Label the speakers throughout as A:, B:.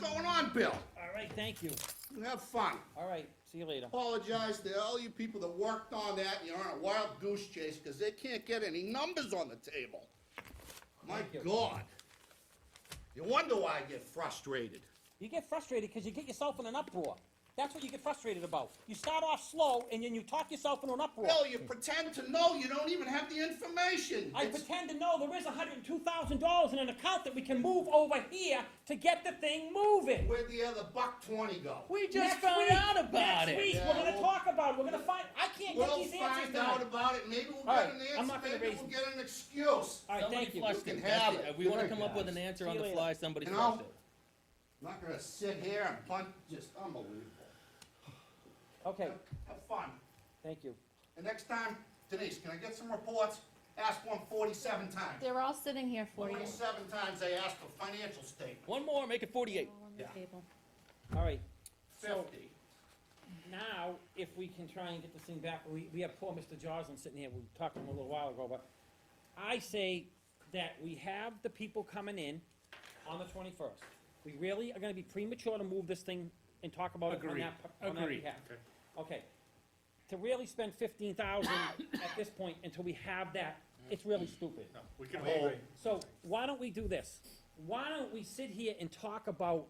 A: good, Bill.
B: All right, thank you.
A: Have fun.
B: All right, see you later.
A: Apologize to all you people that worked on that, and you're on a wild goose chase, because they can't get any numbers on the table. My
B: Thank you.
A: God. You wonder why I get frustrated.
B: You get frustrated because you get yourself in an uproar. That's what you get frustrated about. You start off slow and then you talk yourself into an uproar.
A: Bill, you pretend to know you don't even have the information.
B: I
A: It's-
B: pretend to know there is hundred and two thousand dollars in an account that we can move over here to get the thing moving.
A: Where'd the other buck twenty go?
C: We just
B: Next
C: found
B: week-
C: out about
B: Next
C: it.
B: week,
A: Yeah,
B: we're gonna
A: we'll-
B: talk about it, we're gonna find, I can't get
A: We'll
B: these answers
A: find out
B: tonight.
A: about it, maybe we'll get
B: All right,
A: an
B: I'm
A: answer,
B: not gonna
A: maybe
B: raise
A: we'll
B: them.
A: get an excuse.
B: All right,
C: Somebody
B: thank you.
C: flushed
A: You
C: it.
A: can
C: That's
A: have
C: it.
A: it.
C: We want to
A: Good
C: come up with an
B: guys.
C: answer
B: See
C: on
B: you
C: the
B: later.
C: fly. Somebody
A: You
C: flushed
A: know?
C: it.
A: I'm not gonna sit here and punt, just unbelievable.
B: Okay,
A: Have have fun.
B: thank you.
A: And next time, Denise, can I get some reports? Ask one forty-seven times.
D: They're all sitting here for you.
A: Forty-seven times they asked for financial statement,
C: One more, make it 48.
D: All on the
A: Yeah.
D: table.
B: All right,
A: fifty.
B: now, if we can try and get this thing back, we, we have poor Mr. Joslin sitting here, we talked to him a little while ago, but I say that we have the people coming in on the twenty-first. We really are gonna be premature to move this thing and talk about it on
E: Agreed.
B: that, on that
E: Agreed.
B: behalf. Okay, to really spend fifteen thousand at this point until we have that, it's really stupid.
E: We can
A: I
E: hold.
A: agree.
B: So why don't we do this? Why don't we sit here and talk about,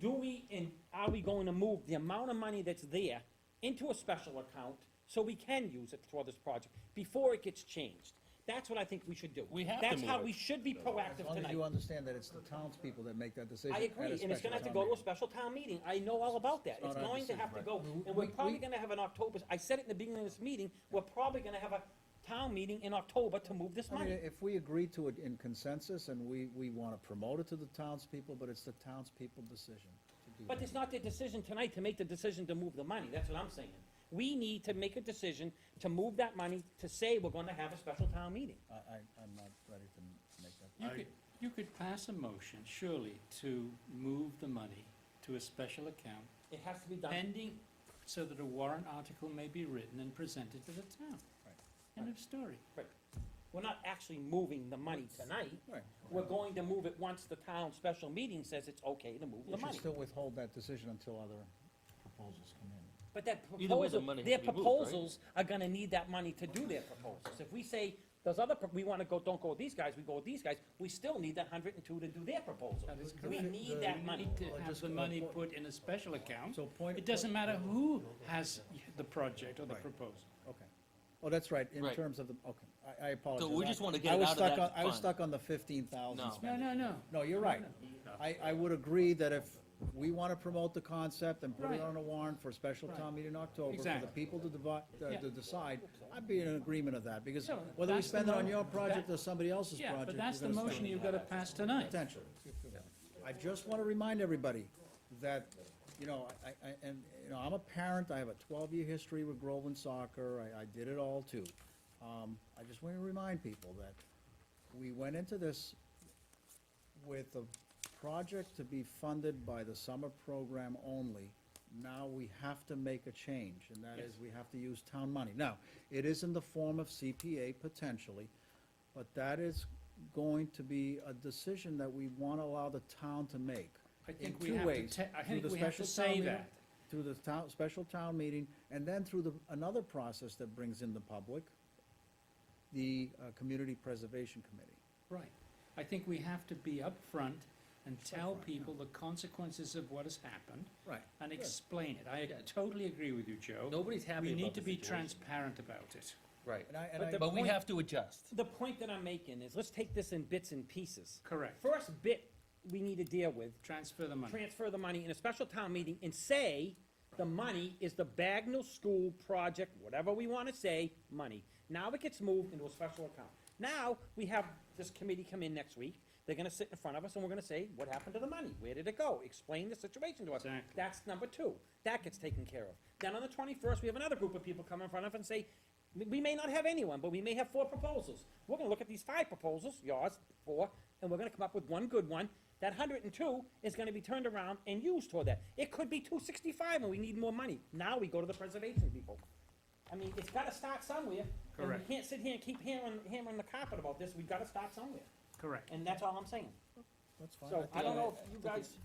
B: do we and are we going to move the amount of money that's there into a special account so we can use it for this project before it gets changed? That's what I think we should do.
C: We have to
B: That's how
C: move it.
B: we should be
F: As
B: proactive
F: long as
B: tonight.
F: you understand that it's the townspeople that make that decision.
B: I
F: at a
B: agree, and it's
F: special
B: gonna have to
F: town
B: go to a
F: meeting.
B: special town meeting, I know all about that, it's
F: not our
B: going to
F: decision,
B: have to
F: right.
B: go,
F: We-
B: and we're
F: we-
B: probably
F: we-
B: gonna have an October, I said it in the beginning of this meeting, we're probably gonna have a town meeting in October to move this
F: I mean,
B: money.
F: if we agree to it in consensus and we, we want to promote it to the townspeople, but it's the townspeople decision to do
B: But
F: that.
B: it's not their decision tonight to make the decision to move the money, that's what I'm saying. We need to make a decision to move that money, to say we're gonna have a special town meeting.
F: I, I, I'm not ready to make that.
E: You
F: I-
E: could, you could pass a motion, surely, to move the money to a special account
B: It has to be done.
E: pending, so that a warrant article may be written and presented to the town.
F: Right.
E: End of story.
B: We're not actually moving the money tonight,
F: Right.
B: we're going to move it once the town special meeting says it's okay to move
F: You
B: the
F: should
B: money.
F: still withhold that decision until other proposals come in.
B: But that
C: Either way, the
B: proposal,
C: money has
B: their
C: to be moved, right?
B: proposals are gonna need that money to do their proposals. If we say, those other, pro- we wanna go, don't go with these guys, we go with these guys, we still need that hundred and two to do their proposal.
E: That is
B: We
E: correct.
B: need that money.
E: We need to have the money put in a special account.
F: So point.
E: It doesn't matter who has the project or the proposal.
F: Okay. Oh, that's right, in
C: Right.
F: terms of the, okay, I, I apologize.
C: we just
F: I-
C: wanna get
F: I
C: it
F: was
C: out of
F: stuck
C: that
F: on- I was
C: fund.
F: stuck on the fifteen thousand
C: No.
E: No, no, no.
F: No, you're right. I, I would agree that if we want to promote the concept and put
E: Right.
F: it on a warrant for a special town meeting in October, for the
E: Exactly.
F: people to divide,
E: Yeah.
F: to decide, I'd be in agreement of that, because
E: No,
F: whether we
E: that's the
F: spend it on
E: mo-
F: your project
E: that-
F: or somebody else's project.
E: Yeah, but that's the
F: we're gonna
E: motion
F: spend it.
E: you've got to pass tonight.
F: Potential. I just want to remind everybody that, you know, I, I, and, you know, I'm a parent, I have a twelve-year history with Groveland soccer, I, I did it all too. Um, I just want to remind people that we went into this with a project to be funded by the summer program only. Now we have to make a change, and that is, we have to use town money. Now, it is in the form of CPA potentially, but that is going to be a decision that we want to allow the town to make.
E: I
F: in
E: think we
F: two
E: have to
F: ways,
E: ta- I
F: through
E: think
F: the
E: we have to
F: special town
E: say
F: meeting-
E: that.
F: Through the town, special town meeting, and then through the, another process that brings in the public, the uh, Community Preservation Committee.
E: Right. I think we have to be upfront and tell people the consequences of what has happened
F: Right.
E: and explain it. I totally agree with you, Joe.
C: Nobody's happy
E: We
C: about
E: need
C: the
E: to be
C: situation.
E: transparent about it.
C: Right.
F: And I, and
B: But
F: I-
B: the-
C: But we
B: point-
C: have to adjust.
B: The point that I'm making is, let's take this in bits and pieces.
E: Correct.
B: First bit we need to deal with,
E: Transfer the money.
B: transfer the money in a special town meeting and say, the money is the Bagnell School project, whatever we wanna say, money. Now it gets moved into a special account. Now, we have this committee come in next week, they're gonna sit in front of us and we're gonna say, what happened to the money? Where did it go? Explain the situation to us.
E: Exactly.
B: That's number two. That gets taken care of. Then on the twenty-first, we have another group of people come in front of us and say, "We- we may not have anyone, but we may have four proposals. We're gonna look at these five proposals, yours, four, and we're gonna come up with one good one. That hundred and two is gonna be turned around and used toward that. It could be two sixty-five and we need more money. Now we go to the preservation people. I mean, it's gotta start somewhere. and
E: Correct.
B: we can't sit here and keep hammering, hammering the carpet about this. We've gotta start somewhere.
E: Correct.
B: And that's all I'm saying.
F: That's fine.
B: So I don't know
F: think-
B: if you guys